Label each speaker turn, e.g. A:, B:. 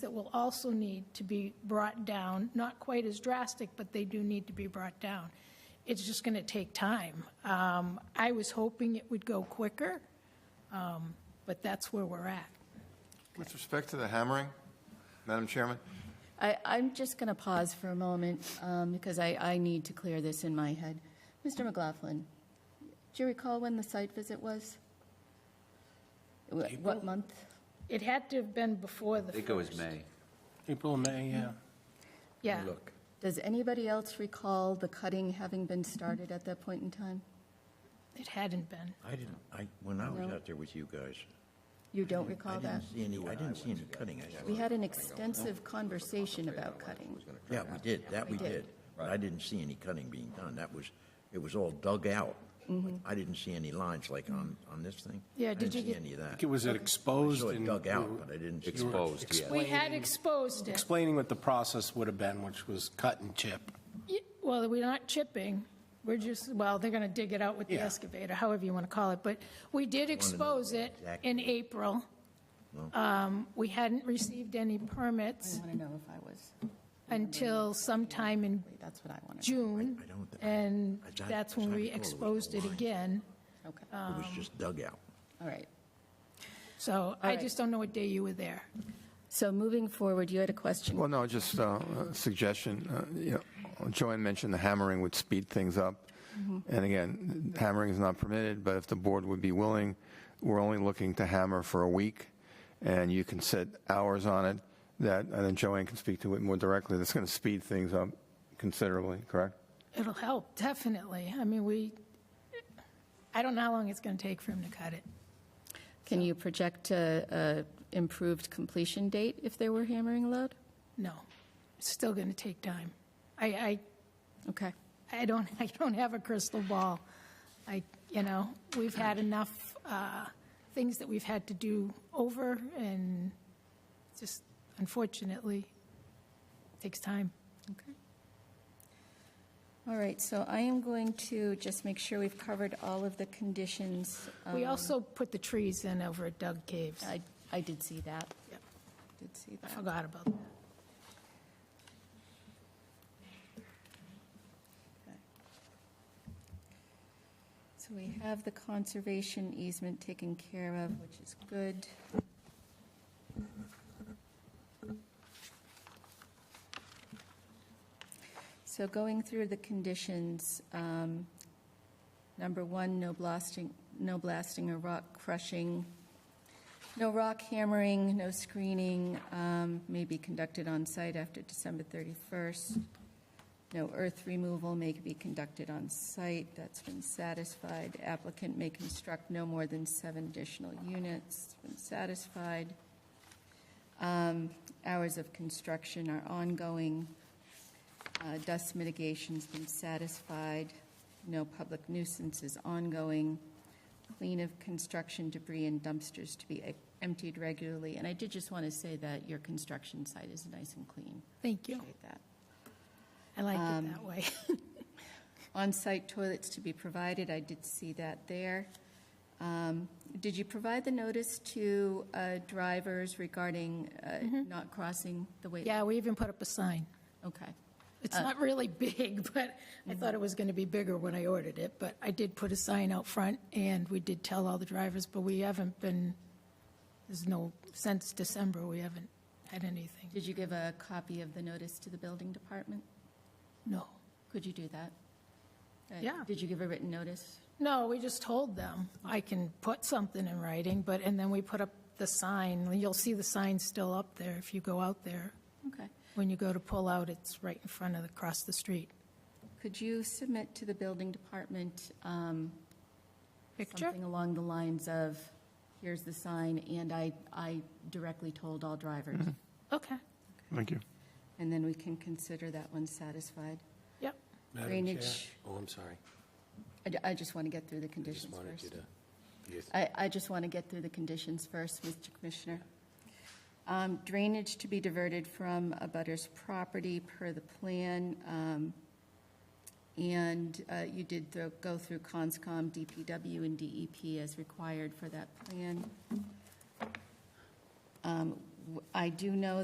A: that will also need to be brought down, not quite as drastic, but they do need to be brought down. It's just going to take time. Um, I was hoping it would go quicker, um, but that's where we're at.
B: With respect to the hammering, Madam Chairman,
C: I, I'm just going to pause for a moment um, because I, I need to clear this in my head. Mr. McLaughlin, do you recall when the site visit was? Wh- What month?
A: It had to have been before the
D: I think it was
A: first.
D: May.
E: April, May, yeah.
A: Yeah,
D: Look,
C: Does anybody else recall the cutting having been started at that point in time?
A: it hadn't been.
F: I didn't, I, when I was
C: No.
F: out there with you guys.
C: You don't
F: I didn't-
C: recall that?
F: I didn't see any, I didn't see any cutting. I
C: Oh, We
F: saw-
C: had an extensive conversation about cutting.
F: Yeah, we did, that we
C: We did.
F: did. But I didn't see any cutting being done. That was, it was all dug out. I didn't see any lines like on, on this thing.
A: Yeah,
F: I
A: did
F: didn't
A: you
F: see
A: get-
F: any of
E: I
F: that.
E: think it was
F: I
E: exposed
F: saw it
E: and.
F: dug out, but I didn't see. it.
D: exposed, yeah.
A: We had exposed it.
E: Explaining what the process would have been, which was cut and chip.
A: Y- Well, we're not chipping, we're just, well, they're going to dig it out with the
E: Yeah.
A: excavator, however you want to call it, but we did expose it in
F: exactly.
A: April. Um, We hadn't received any
C: I
A: permits
C: want to know if I was,
A: until sometime in
C: that's what I want to know.
A: June,
F: I don't- I-
A: and
F: I don't-
A: that's when
F: I
A: we
F: recall it was
A: exposed it
F: online.
A: again.
C: Okay,
F: It was just dug out.
C: all right.
A: So I
C: right.
A: just don't know what day you were there.
C: So moving forward, you had a question.
B: Well, no, just uh, a suggestion. Uh, you know, Joanne mentioned the hammering would speed things up. And again, hammering is not permitted, but if the board would be willing, we're only looking to hammer for a week, and you can set hours on it that, and then Joanne can speak to it more directly. That's going to speed things up considerably, correct?
A: It'll help, definitely. I mean, we, I don't know how long it's going to take for him to cut it.
C: Can you project a, a improved completion date if there were hammering allowed?
A: No, it's still going to take time. I, I
C: Okay.
A: I don't, I don't have a crystal ball. I, you know, we've had enough uh, things that we've had to do over, and just unfortunately, takes time.
C: Okay. All right, so I am going to just make sure we've covered all of the conditions.
A: We
C: Um,
A: also put the trees in over at Doug Caves.
C: I, I did see that.
A: Yep.
C: Did see
A: I
C: that.
A: forgot about that.
C: So we have the conservation easement taken care of, which is good. So going through the conditions, um, number one, no blasting, no blasting or rock crushing, no rock hammering, no screening, um, may be conducted on site after December 31st. No earth removal may be conducted on site, that's been satisfied. Applicant may construct no more than seven additional units, been satisfied. Um, Hours of construction are ongoing. Uh, Dust mitigation's been satisfied. No public nuisance is ongoing. Clean of construction debris and dumpsters to be eh, emptied regularly. And I did just want to say that your construction site is nice and clean.
A: Thank you.
C: Appreciate that.
A: I like it that way.
C: On-site toilets to be provided, I did see that there. Um, Did you provide the notice to uh, drivers regarding uh, not crossing the way?
A: Mm-hmm. Yeah, we even put up a sign.
C: Okay,
A: It's not really big, but I thought it was going to be bigger when I ordered it, but I did put a sign out front, and we did tell all the drivers, but we haven't been, there's no, since December, we haven't had anything.
C: did you give a copy of the notice to the building department?
A: No.
C: Could you do that? Uh,
A: Yeah.
C: Did you give a written notice?
A: No, we just told them, I can put something in writing, but, and then we put up the sign. You'll see the sign still up there if you go out there.
C: Okay.
A: When you go to pull out, it's right in front of, the across the street.
C: Could you submit to the building department um,
A: Picture?
C: something along the lines of, here's the sign, and I, I directly told all drivers?
A: Okay,
B: Thank you.
C: And then we can consider that one satisfied.
A: yep.
E: Madam
C: Drainage.
E: Chair. Oh, I'm sorry.
C: I ju- I just want to get through the
E: I just
C: conditions
E: wanted you
C: first.
E: to. Yes.
C: I, I just want to get through the conditions first, Mr. Commissioner. Um, Drainage to be diverted from a butter's property per the plan. um, And uh, you did thro- go through CONSCOM, DPW, and DEP as required for that plan. Um, w- I do know